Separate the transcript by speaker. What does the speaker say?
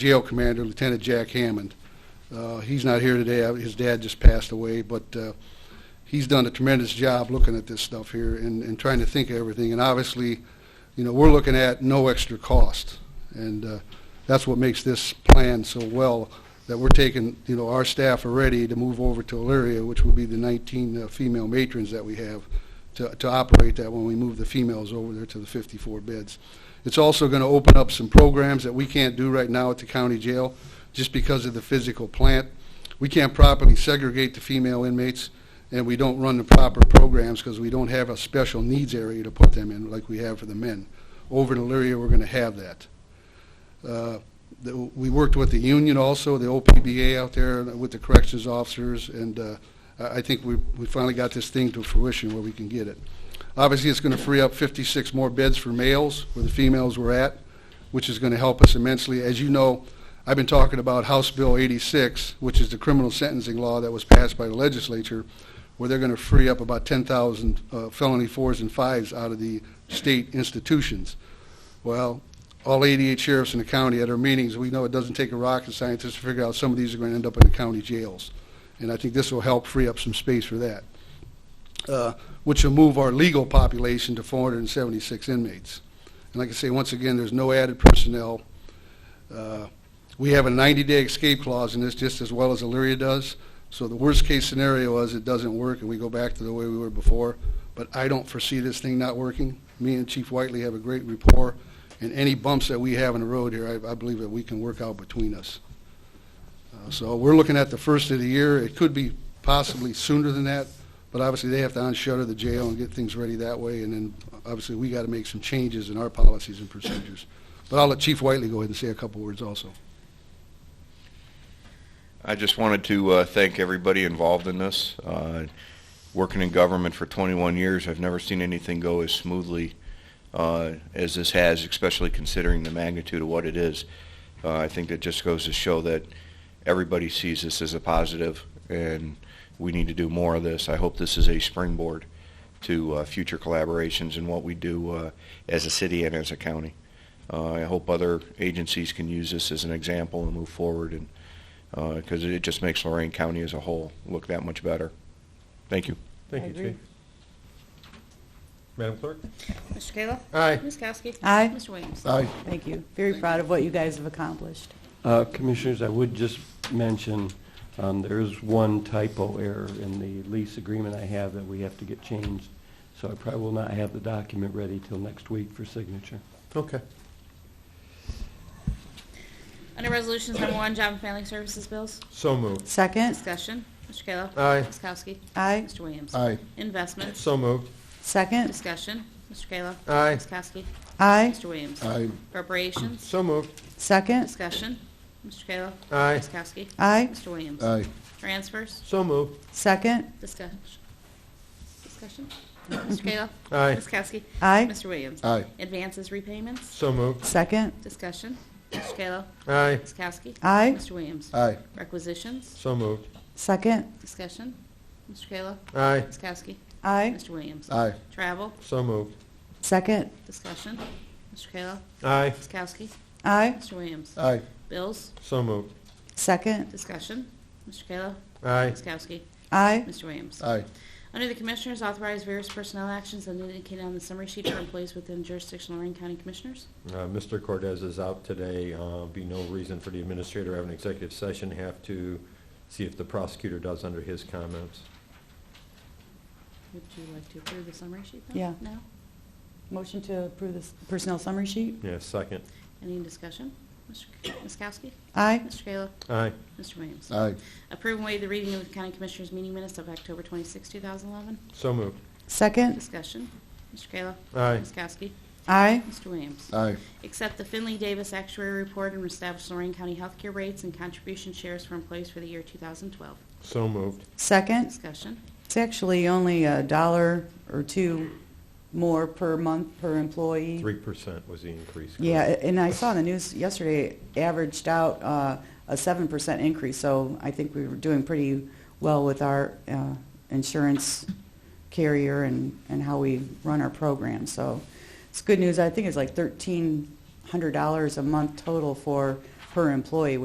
Speaker 1: jail commander, Lieutenant Jack Hammond. Uh, He's not here today, Uh, his dad just passed away, but uh, he's done a tremendous job looking at this stuff here and, and trying to think of everything. And obviously, you know, we're looking at no extra cost. And uh, that's what makes this plan so well, that we're taking, you know, our staff are ready to move over to Elyria, which will be the 19 uh, female matrons that we have, to, to operate that when we move the females over there to the 54 beds. It's also going to open up some programs that we can't do right now at the county jail, just because of the physical plant. We can't properly segregate the female inmates, and we don't run the proper programs because we don't have a special needs area to put them in like we have for the men. Over in Elyria, we're going to have that. Uh, the- We worked with the union also, the OPBA out there with the corrections officers, and uh, I I think we we finally got this thing to fruition where we can get it. Obviously, it's going to free up 56 more beds for males where the females were at, which is going to help us immensely. As you know, I've been talking about House Bill 86, which is the criminal sentencing law that was passed by the legislature, where they're going to free up about 10,000 uh, felony fours and fives out of the state institutions. Well, all 88 sheriffs in the county at our meetings, we know it doesn't take a rocket scientist to figure out some of these are going to end up in the county jails. And I think this will help free up some space for that, uh, which will move our legal population to 476 inmates. And like I say, once again, there's no added personnel. Uh, We have a 90-day escape clause in this, just as well as Elyria does. So the worst-case scenario is it doesn't work and we go back to the way we were before. But I don't foresee this thing not working. Me and Chief Whiteley have a great rapport, and any bumps that we have in the road here, I, I believe that we can work out between us. Uh, So we're looking at the first of the year. It could be possibly sooner than that, but obviously they have to unshutter the jail and get things ready that way. And then obviously we got to make some changes in our policies and procedures. But I'll let Chief Whiteley go ahead and say a couple words also.
Speaker 2: I just wanted to uh, thank everybody involved in this. Uh, working in government for 21 years, I've never seen anything go as smoothly uh, as this has, especially considering the magnitude of what it is. Uh, I think that just goes to show that everybody sees this as a positive, and we need to do more of this. I hope this is a springboard to uh, future collaborations and what we do uh, as a city and as a county. Uh, I hope other agencies can use this as an example and move forward and because uh, it just makes Lorraine County as a whole look that much better. Thank you.
Speaker 3: Thank
Speaker 4: I
Speaker 3: you,
Speaker 4: agree.
Speaker 3: Chief. Madam Clerk?
Speaker 4: Mr. Kayla?
Speaker 3: Aye.
Speaker 4: Ms. Kowski?
Speaker 5: Aye.
Speaker 4: Mr. Williams?
Speaker 1: Aye.
Speaker 5: Thank you. Very proud of what you guys have accomplished.
Speaker 3: Uh, Commissioners, I would just mention, um, there is one typo error in the lease agreement I have that we have to get changed, so I probably will not have the document ready till next week for signature.
Speaker 6: Okay.
Speaker 4: Under Resolutions Number One, Job and Family Services Bills?
Speaker 6: So moved.
Speaker 5: Second,
Speaker 4: Discussion. Mr. Kayla?
Speaker 6: Aye.
Speaker 4: Ms. Kowski?
Speaker 5: aye.
Speaker 4: Mr. Williams?
Speaker 6: Aye.
Speaker 4: Investments?
Speaker 6: So moved.
Speaker 5: Second,
Speaker 4: Discussion. Mr. Kayla?
Speaker 6: Aye.
Speaker 4: Ms. Kowski?
Speaker 5: aye.
Speaker 4: Mr. Williams?
Speaker 6: Aye.
Speaker 4: Appropriations?
Speaker 6: So moved.
Speaker 5: Second,
Speaker 4: Discussion. Mr. Kayla?
Speaker 6: Aye.
Speaker 4: Ms. Kowski?
Speaker 5: aye.
Speaker 4: Mr. Williams?
Speaker 6: Aye.
Speaker 4: Transfers?
Speaker 6: So moved.
Speaker 5: Second,
Speaker 4: Discussion. Discussion. Mr. Kayla?
Speaker 6: Aye.
Speaker 4: Ms. Kowski?
Speaker 5: aye.
Speaker 4: Mr. Williams?
Speaker 6: Aye.
Speaker 4: Advances, repayments?
Speaker 6: So moved.
Speaker 5: Second,
Speaker 4: Discussion. Mr. Kayla?
Speaker 6: Aye.
Speaker 4: Ms. Kowski?
Speaker 5: aye.
Speaker 4: Mr. Williams?
Speaker 6: Aye.
Speaker 4: Requisitions?
Speaker 6: So moved.
Speaker 5: Second,
Speaker 4: Discussion. Mr. Kayla?
Speaker 6: Aye.
Speaker 4: Ms. Kowski?
Speaker 5: aye.
Speaker 4: Mr. Williams?
Speaker 6: Aye.
Speaker 4: Travel?
Speaker 6: So moved.
Speaker 5: Second,
Speaker 4: Discussion. Mr. Kayla?
Speaker 6: Aye.
Speaker 4: Ms. Kowski?
Speaker 5: aye.
Speaker 4: Mr. Williams?
Speaker 6: Aye.
Speaker 4: Bills?
Speaker 6: So moved.
Speaker 5: Second,
Speaker 4: Discussion. Mr. Kayla?
Speaker 6: Aye.
Speaker 4: Ms. Kowski?
Speaker 5: aye.
Speaker 4: Mr. Williams?
Speaker 6: Aye.
Speaker 4: Under the Commissioners, authorize various personnel actions as indicated on the summary sheet for employees within jurisdiction of Lorraine County Commissioners.
Speaker 6: Uh, Mr. Cordez is out today. Uh, Be no reason for the administrator to have an executive session. Have to see if the prosecutor does under his comments.
Speaker 4: Would you like to approve the summary sheet, though?
Speaker 5: Yeah.
Speaker 4: No?
Speaker 5: Motion to approve the personnel summary sheet?
Speaker 6: Yeah, second.
Speaker 4: Any discussion? Mr. K- Ms. Kowski?
Speaker 5: Aye.
Speaker 4: Mr. Kayla?
Speaker 6: Aye.
Speaker 4: Mr. Williams?
Speaker 6: Aye.
Speaker 4: Approve and waive the reading of the County Commissioners meeting minutes of October 26, 2011.
Speaker 6: So moved.
Speaker 5: Second,
Speaker 4: Discussion. Mr. Kayla?
Speaker 6: Aye.
Speaker 4: Ms. Kowski?
Speaker 5: aye.
Speaker 4: Mr. Williams?
Speaker 6: Aye.
Speaker 4: Accept the Finley Davis Actuary Report and establish Lorraine County healthcare rates and contribution shares for employees for the year 2012.
Speaker 6: So moved.
Speaker 5: Second,
Speaker 4: Discussion.
Speaker 5: it's actually only a dollar or two more per month per employee.
Speaker 6: Three percent was the increase. correct?
Speaker 5: Yeah, and I saw in the news yesterday, it averaged out uh, a 7% increase, so I think we were doing pretty well with our uh, insurance carrier and, and how we run our program. So it's good news. I think it's like $1,300 a month total for per employee,